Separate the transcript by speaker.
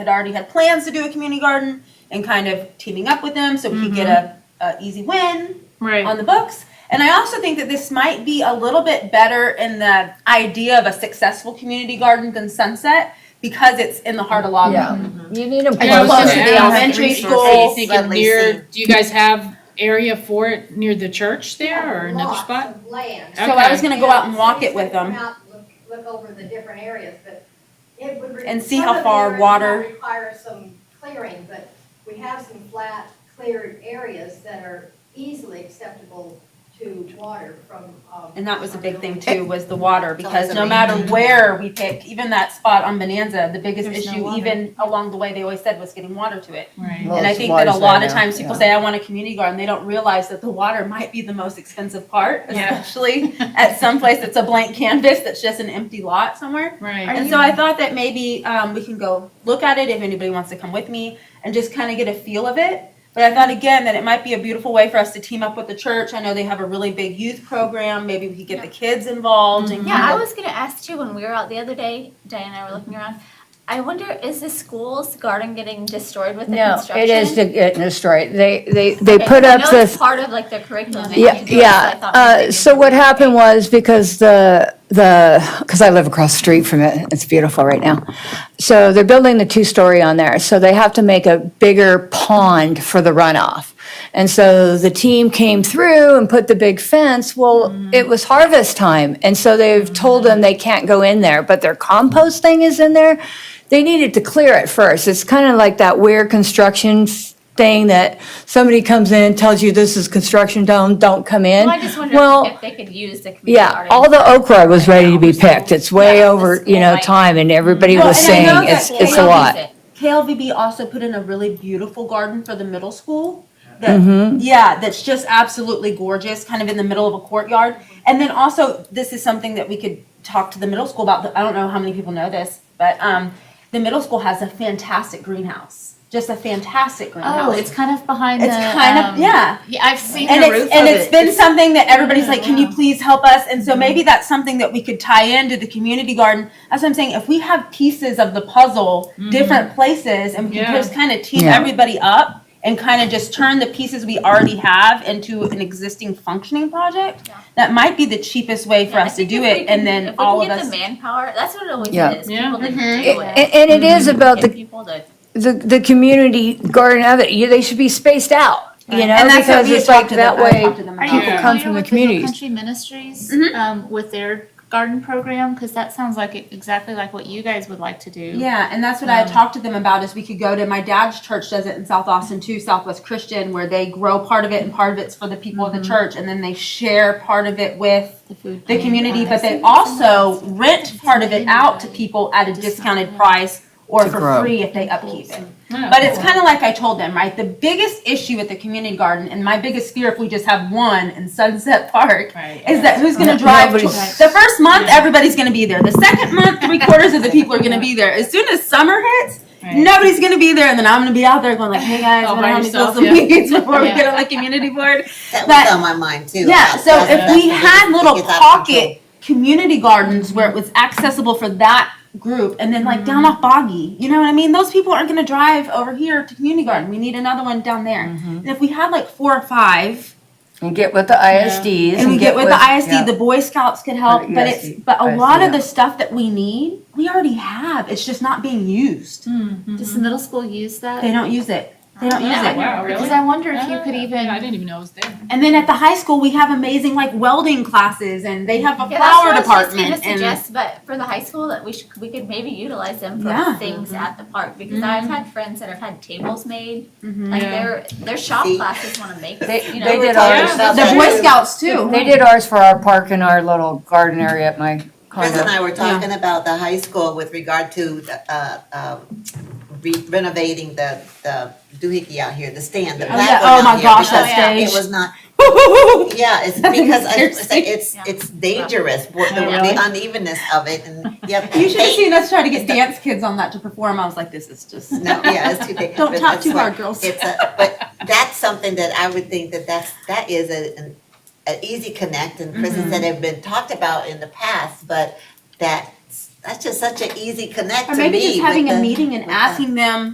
Speaker 1: had already had plans to do a community garden and kind of teaming up with them so we could get a, a easy win
Speaker 2: Right.
Speaker 1: on the books. And I also think that this might be a little bit better in the idea of a successful community garden than Sunset because it's in the heart of Logan.
Speaker 3: Yeah. Um, You need them
Speaker 2: I know,
Speaker 3: close
Speaker 2: I
Speaker 3: to
Speaker 2: was
Speaker 3: the
Speaker 2: gonna ask,
Speaker 3: elementary
Speaker 1: resources.
Speaker 3: school.
Speaker 2: Are you
Speaker 1: schools
Speaker 2: thinking
Speaker 3: at least.
Speaker 2: near, do you guys have area for it near the church there or another
Speaker 4: Lots
Speaker 2: spot?
Speaker 4: of land.
Speaker 1: So I was
Speaker 2: Okay.
Speaker 1: gonna go out and walk it with them.
Speaker 4: Come out, Look look over the different areas, but it would. re-
Speaker 1: And see
Speaker 4: some
Speaker 1: how
Speaker 4: of the
Speaker 1: far
Speaker 4: areas
Speaker 1: water-
Speaker 4: might Require some clearing, but we have some flat cleared areas that are easily acceptable to water from. um,
Speaker 1: And that was a big thing
Speaker 4: from-
Speaker 1: too, was the water, because
Speaker 3: It's
Speaker 1: no
Speaker 3: amazing.
Speaker 1: matter where we pick, even that spot on Bonanza, the biggest
Speaker 2: There's no
Speaker 1: issue,
Speaker 2: water.
Speaker 1: even along the way, they always said was getting water to it.
Speaker 2: Right.
Speaker 3: Well,
Speaker 1: And I
Speaker 3: it's
Speaker 1: think that a
Speaker 3: water's
Speaker 1: lot
Speaker 3: there
Speaker 1: of
Speaker 3: now,
Speaker 1: times people
Speaker 3: yeah.
Speaker 1: say, I want a community garden, they don't realize that the water might be the most expensive part,
Speaker 2: Yeah.
Speaker 1: especially at some place that's a blank canvas, that's just an empty lot somewhere.
Speaker 2: Right.
Speaker 1: And so I thought that maybe um, we can go look at it if anybody wants to come with me and just kind of get a feel of it. But I thought again that it might be a beautiful way for us to team up with the church. I know they have a really big youth program. Maybe we could get the kids involved and
Speaker 5: Yeah, I
Speaker 3: Mm-hmm.
Speaker 1: kind of-
Speaker 5: was gonna ask too, when we were out the other day, Diane and I were looking around, I wonder, is the school's garden getting destroyed with the
Speaker 3: No,
Speaker 5: construction?
Speaker 3: it is to get destroyed. They, they, they
Speaker 5: Okay,
Speaker 3: put
Speaker 5: I
Speaker 3: up
Speaker 5: know it's
Speaker 3: this,
Speaker 5: Part of like their curriculum. they
Speaker 3: yeah,
Speaker 5: need to do it,
Speaker 3: yeah.
Speaker 5: I thought maybe
Speaker 3: Uh,
Speaker 5: they
Speaker 3: So
Speaker 5: could-
Speaker 3: what happened was because the, the, because I live across the street from it, it's beautiful right now. So they're building the two-story on there, so they have to make a bigger pond for the runoff. And so the team came through and put the big fence, well, it was harvest time, and so they've told them they can't go in there, but their compost thing is in there. They needed to clear it first, it's kind of like that weird construction s- thing that somebody comes in, tells you this is construction, don't, don't come in.
Speaker 5: Well, I just wonder
Speaker 3: Well,
Speaker 5: if they could use the community
Speaker 3: yeah,
Speaker 5: garden.
Speaker 3: all the okra was ready to be picked. It's way
Speaker 5: Yeah, the
Speaker 3: over, you
Speaker 5: school
Speaker 3: know,
Speaker 5: might-
Speaker 3: time and everybody
Speaker 5: Oh,
Speaker 1: Well,
Speaker 3: was
Speaker 1: and I
Speaker 3: saying
Speaker 1: know that
Speaker 3: it's,
Speaker 1: they
Speaker 3: it's a
Speaker 1: don't
Speaker 3: lot.
Speaker 5: Use it.
Speaker 1: KLVB also put in a really beautiful garden for the middle school.
Speaker 3: Mm-hmm.
Speaker 1: That, Yeah, that's just absolutely gorgeous, kind of in the middle of a courtyard. And then also, this is something that we could talk to the middle school about. I don't know how many people know this, but um, the middle school has a fantastic greenhouse, just a fantastic greenhouse.
Speaker 6: Oh, it's kind of behind
Speaker 1: It's
Speaker 6: the.
Speaker 1: kind of
Speaker 6: um,
Speaker 1: yeah,
Speaker 6: Yeah, I've seen
Speaker 1: and
Speaker 6: the
Speaker 1: it's
Speaker 6: roof
Speaker 1: and
Speaker 6: of
Speaker 1: it's
Speaker 6: it.
Speaker 1: been something that everybody's like, can you please help us? And
Speaker 6: Mm-hmm.
Speaker 1: so maybe that's something that we could tie into the community garden. That's what I'm saying. If we have pieces of the puzzle,
Speaker 2: Mm-hmm.
Speaker 5: Mm-hmm.
Speaker 1: different places, and we can
Speaker 2: Yeah.
Speaker 1: just kind of team
Speaker 3: Yeah.
Speaker 1: everybody up and kind of just turn the pieces we already have into an existing functioning project,
Speaker 5: Yeah.
Speaker 1: that might be the cheapest way for
Speaker 5: Yeah, I
Speaker 1: us to
Speaker 5: think
Speaker 1: do
Speaker 5: if we
Speaker 1: it, and
Speaker 5: can-
Speaker 1: then
Speaker 5: if we
Speaker 1: all
Speaker 5: can
Speaker 1: of
Speaker 5: get
Speaker 1: us.
Speaker 5: the manpower, that's what it always
Speaker 3: Yeah.
Speaker 5: is,
Speaker 2: Yeah.
Speaker 5: people to do
Speaker 6: Mhm.
Speaker 5: it.
Speaker 3: And, and it is about
Speaker 5: Get
Speaker 3: the,
Speaker 5: people to,
Speaker 3: the, the community garden of it. You, they should be spaced out, you know,
Speaker 1: and that's what
Speaker 3: because
Speaker 1: we had
Speaker 3: it's
Speaker 1: talked
Speaker 3: like
Speaker 1: to
Speaker 3: that
Speaker 1: them- I
Speaker 3: way.
Speaker 1: talked to them
Speaker 6: Are
Speaker 1: about
Speaker 2: Yeah.
Speaker 6: you
Speaker 1: it.
Speaker 6: familiar
Speaker 3: Come from the
Speaker 6: with
Speaker 3: communities. Mm-hmm.
Speaker 6: Hill Country Ministries
Speaker 1: Mhm.
Speaker 6: um, with their garden program? Because that sounds like it- exactly like what you guys would like to do.
Speaker 1: Yeah, and that's what I had talked to them about is we could go to my dad's church does it in South Austin too, Southwest Christian, where they grow part of it and part of it's for the people of the
Speaker 5: Mm-hmm.
Speaker 1: church, and then they share part of it with
Speaker 6: The food.
Speaker 1: the
Speaker 6: bank.
Speaker 1: community, but they
Speaker 6: I've
Speaker 1: also rent part of it out to
Speaker 6: Right.
Speaker 1: people at a
Speaker 6: Just
Speaker 1: discounted
Speaker 6: not-
Speaker 1: price or
Speaker 3: To
Speaker 1: for
Speaker 3: grow.
Speaker 1: free if they
Speaker 6: seen
Speaker 1: upkeep
Speaker 6: people,
Speaker 1: it.
Speaker 6: so-
Speaker 2: Oh,
Speaker 1: But it's kind of like I told them, right? The biggest issue with the community garden, and my biggest fear if we just have one in Sunset Park,
Speaker 2: Right.
Speaker 1: is that who's going
Speaker 3: No-
Speaker 1: to drive? To,
Speaker 3: nobody's-
Speaker 1: the first month, everybody's going to be there. The second month, three quarters of the people are going to be there. As soon as summer hits,
Speaker 2: Right.
Speaker 1: nobody's going to be there, and then I'm going to be out there going like, "Hey guys,
Speaker 2: All
Speaker 1: want
Speaker 2: by
Speaker 1: to help me
Speaker 2: yourself,
Speaker 1: fill some
Speaker 2: yeah.
Speaker 1: weeds before we
Speaker 6: Yeah.
Speaker 1: get on the community board?"
Speaker 7: That
Speaker 1: But-
Speaker 7: was on my mind too.
Speaker 1: Yeah. So
Speaker 7: That's-
Speaker 1: if
Speaker 7: that's
Speaker 1: we
Speaker 7: what it
Speaker 1: had
Speaker 7: is. It
Speaker 1: little
Speaker 7: gets out of control.
Speaker 1: pocket community gardens where it was accessible for that group, and then like down off Boggy, you know what I mean? Those people aren't going to drive over here to community garden. We need another one down there.
Speaker 3: Mm-hmm.
Speaker 1: And if we had like four or five.
Speaker 3: And get with the ISDs.
Speaker 1: and we get with the ISD,
Speaker 3: yeah.
Speaker 1: the Boy Scouts could help,
Speaker 3: Or
Speaker 1: but
Speaker 3: ESD,
Speaker 1: it's but a
Speaker 3: ISD,
Speaker 1: lot of
Speaker 3: yeah.
Speaker 1: the stuff that we need, we already have. It's just not being used.
Speaker 2: Mm-hmm.
Speaker 6: Does the middle school use that?
Speaker 1: They don't use it. They don't use
Speaker 2: Oh,
Speaker 1: it.
Speaker 2: wow, really?
Speaker 6: Because I wonder if you could
Speaker 2: Ah,
Speaker 6: even.
Speaker 2: I didn't even know it was there.
Speaker 1: And then at the high school, we have amazing like welding classes, and they have a
Speaker 5: yeah, that's
Speaker 1: flower
Speaker 5: what I was just
Speaker 1: department.
Speaker 5: gonna
Speaker 1: and
Speaker 5: suggest, but for the high school, that we should, we could maybe utilize them
Speaker 1: Yeah.
Speaker 5: for things at the park, because I've had friends that have had tables made, like
Speaker 1: Mm-hmm.
Speaker 2: Yeah.
Speaker 5: their, their shop
Speaker 7: See?
Speaker 5: classes wanna make,
Speaker 3: They-
Speaker 5: you know.
Speaker 3: they
Speaker 5: we're
Speaker 3: did
Speaker 5: talking
Speaker 3: ours.
Speaker 5: about
Speaker 7: That's
Speaker 1: the
Speaker 7: what
Speaker 1: Boy
Speaker 7: it is.
Speaker 1: Scouts too.
Speaker 3: They did ours for our park and our little garden area at my
Speaker 7: Chris and
Speaker 3: condo.
Speaker 7: I were talking about the high school with regard to the, uh, um, re- renovating the, the doohickey out here, the stand, the
Speaker 1: Oh,
Speaker 7: black
Speaker 1: yeah.
Speaker 7: one
Speaker 1: Oh,
Speaker 7: out
Speaker 1: my
Speaker 7: here,
Speaker 1: gosh, that
Speaker 7: because
Speaker 1: stage.
Speaker 7: It was not, yeah, it's
Speaker 1: That thing
Speaker 7: because I-
Speaker 1: scares me.
Speaker 7: it's,
Speaker 5: Yeah.
Speaker 7: it's dangerous, what the,
Speaker 2: Oh, really?
Speaker 7: the unevenness of it and, yep.
Speaker 1: you should have
Speaker 7: they-
Speaker 1: seen us try to get dance kids on that to perform. I was like, this is just
Speaker 7: No, yeah, it's too big.
Speaker 1: don't
Speaker 7: but
Speaker 1: talk
Speaker 7: that's
Speaker 1: too
Speaker 7: why-
Speaker 1: hard, girls.
Speaker 7: It's a, but that's something that I would think that that's, that is a, an,
Speaker 1: Mm-hmm.
Speaker 7: an easy connect and prisons that have been talked about in the past, but that that's just such an easy connect to
Speaker 1: Or
Speaker 7: me.
Speaker 1: maybe just
Speaker 7: with
Speaker 1: having a
Speaker 7: the-
Speaker 1: meeting and
Speaker 7: with the-
Speaker 1: asking them